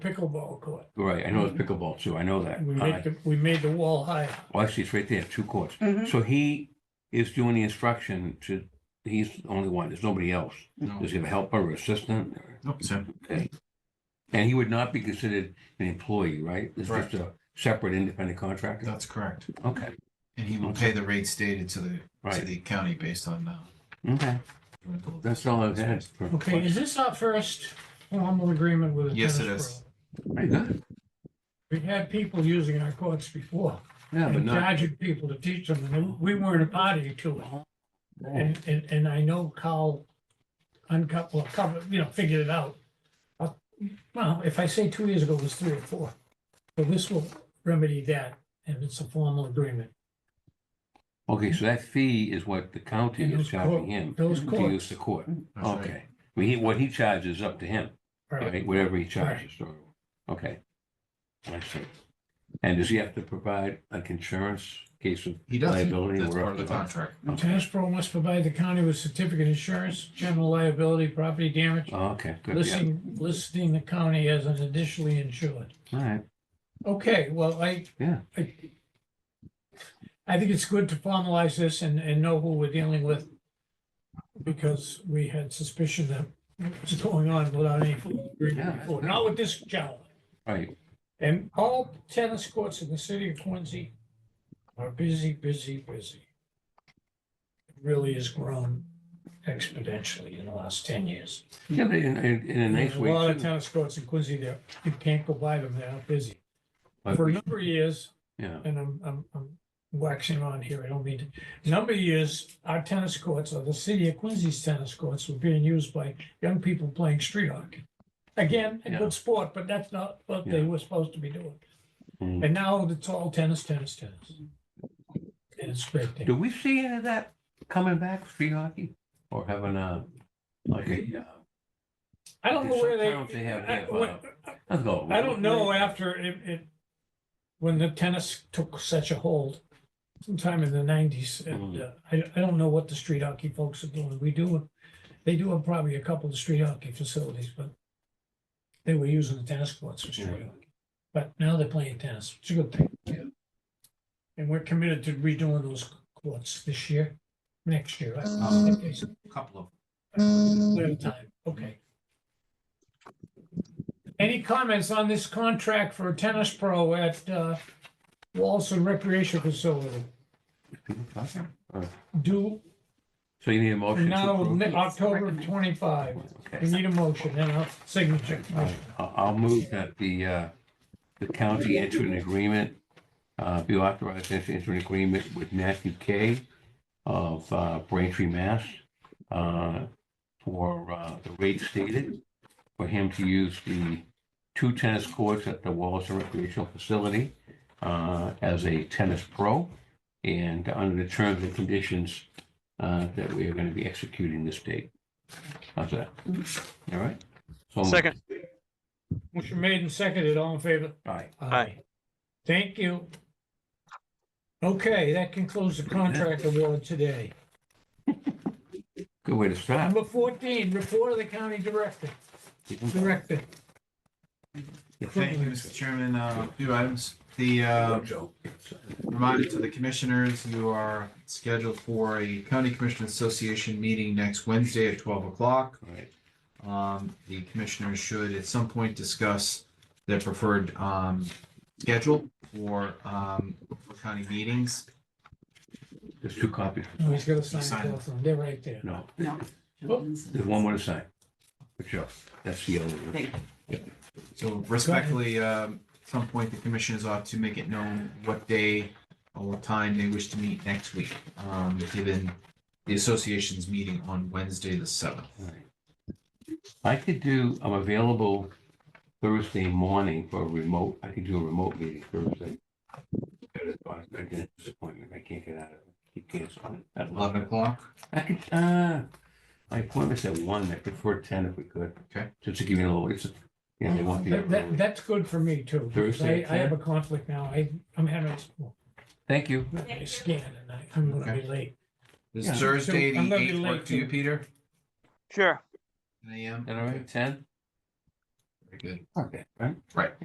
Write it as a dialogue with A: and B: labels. A: pickleball court.
B: Right, I know it's
A: Mm-hmm.
B: pickleball too, I know that.
A: We
B: Uh,
A: made, the- we made the wall higher.
B: Well, actually, it's right there, two courts.
A: Mm-hmm.
C: Mhm.
B: So he is doing the instruction to, he's the only one, there's nobody else.
A: Oh.
D: No,
B: Does he have a helper or assistant? or-
D: no, sir.
B: Okay. And he would not be considered an employee, right? It's just
D: Correct.
B: a separate independent contractor?
D: That's correct.
B: Okay,
D: And he will pay the rate stated to the, to
B: right,
D: the county based on, uh,
B: okay,
D: rental.
B: that's all I've had. for-
A: Okay, is this our first formal agreement with a tennis
D: Yes,
A: pro?
D: it is.
B: Very good.
A: We've had people using our courts before,
B: Yeah, but
A: and
B: not.
A: charging people to teach them, and we weren't a party to it. And, and, and I know Carl uncut, well, covered, you know, figured it out. Uh, Well, if I say two years ago, it was three or four. So this will remedy that, and it's a formal agreement.
B: Okay, so that fee is what the county
A: And
B: is
A: those
B: charging
A: court-
B: him
A: those
B: to use the
A: courts.
B: court.
D: That's right.
B: Okay, I mean, he, what he charges is up to him.
A: Right.
B: Right, whatever he charges, or, okay. I see. And does he have to provide like insurance in case of,
D: He doesn't,
B: Liability,
D: that's
B: we're
D: part of
B: up
D: the
B: to that.
D: contract.
A: The Tennis pro must provide the county with certificate of insurance, general liability, property damage,
B: oh, okay, good, yeah,
A: listing, listing the county as an additionally insured.
B: all right,
A: Okay, well, I.
B: Yeah.
A: I I think it's good to formalize this and, and know who we're dealing with. Because we had suspicion that was going on without any
B: Yeah,
A: agreement before, not with this gentleman.
B: all right,
A: And all tennis courts in the city of Quincy are busy, busy, busy. It Really has grown exponentially in the last ten years.
B: yeah, but in, in, in a nice
A: There's a
B: way.
A: lot of
B: too,
A: tennis courts in Quincy there, you can't go by them, they're not busy.
B: but
A: For a
B: we-
A: number of years,
B: Yeah,
A: and I'm, I'm, I'm waxing on here, I don't mean to. Number of years, our tennis courts, or the city of Quincy's tennis courts were being used by young people playing street hockey. Again, a
B: Yeah.
A: good sport, but that's not what they
B: Yeah.
A: were supposed to be doing.
B: Mm.
A: And now it's all tennis, tennis, tennis. And it's great
B: do
A: thing.
B: we see any of that coming back, street hockey, or having a, uh, like a, uh,
A: I don't know where
B: Sometimes they
A: they,
B: have- uh,
A: I-
B: have,
A: what-
B: let's go.
A: I don't know after it, it, when the tennis took such a hold sometime in the nineties, and uh, I, I don't know what the street hockey folks are doing. We do, they do have probably a couple of street hockey facilities, but they were using the tennis courts for street
B: Yeah.
A: hockey. But now they're playing tennis, which is a good thing. And we're committed to redoing those courts this year, next year. I-
D: Um,
A: Okay, so
D: Couple of
A: Clear time, okay. Any comments on this contract for a tennis pro at uh, Walson Recreation Facility?
B: People talking?
A: Do
B: So you need a motion to
A: now,
B: approve?
A: ne- October of twenty-five. We
B: Okay.
A: need a motion and a signature.
B: I- I'll move that the, uh, the county enter an agreement, uh, be authorized to enter an agreement with Matthew Kay of uh, Braintree, Mass. uh, For uh, the rate stated, for him to use the two tennis courts at the Wallace Recreational Facility uh, as a tennis pro. And under the terms and conditions uh, that we are going to be executing this date. How's that? All right? So moved.
E: Second,
A: Motion made and seconded, all in favor?
B: Aye.
E: Aye.
A: Thank you. Okay, that concludes the contract award today.
B: Good way to start.
A: Number fourteen, report of the county director, director.
D: Thank you, Mr. Chairman. Uh, A few items. The uh, reminder to the commissioners, you are scheduled for a County Commissioner Association meeting next Wednesday at twelve o'clock.
B: Right.
D: Um, The commissioners should at some point discuss their preferred um, schedule for um, for county meetings.
B: There's two copies.
A: Oh, he's gotta
D: Sign
A: sign
D: it.
A: both of them, they're right there.
B: No,
C: No.
B: there's one more to sign. For sure. That's the only one.
C: Thank
D: So respectfully, um, at some point, the commissioners ought to make it known what day or what time they wish to meet next week, um, given the association's meeting on Wednesday, the seventh.
B: All right. I could do, I'm available Thursday morning for a remote, I could do a remote meeting Thursday. Got a- got a dentist appointment. I can't get out of it. Keep canceling it. At
D: Eleven o'clock?
B: I could, uh, my appointment's at one, I prefer ten if we could.
D: Okay.
B: Just to give you a little, it's, you know, they want
A: That, that-
B: the.
A: that's good for me too. because
B: Thursday,
A: I, I have a conflict now. I, I'm having,
B: Thank you.
A: I scan and I, I'm gonna be late.
D: Does
B: Yeah.
D: Thursday,
A: So I'm
D: the
A: gonna be
D: eighth
A: late
D: work for you,
A: too.
D: Peter?
E: sure.
D: Nine AM?
B: Is that all right, ten? Very good.
D: Okay. Right.
B: Right.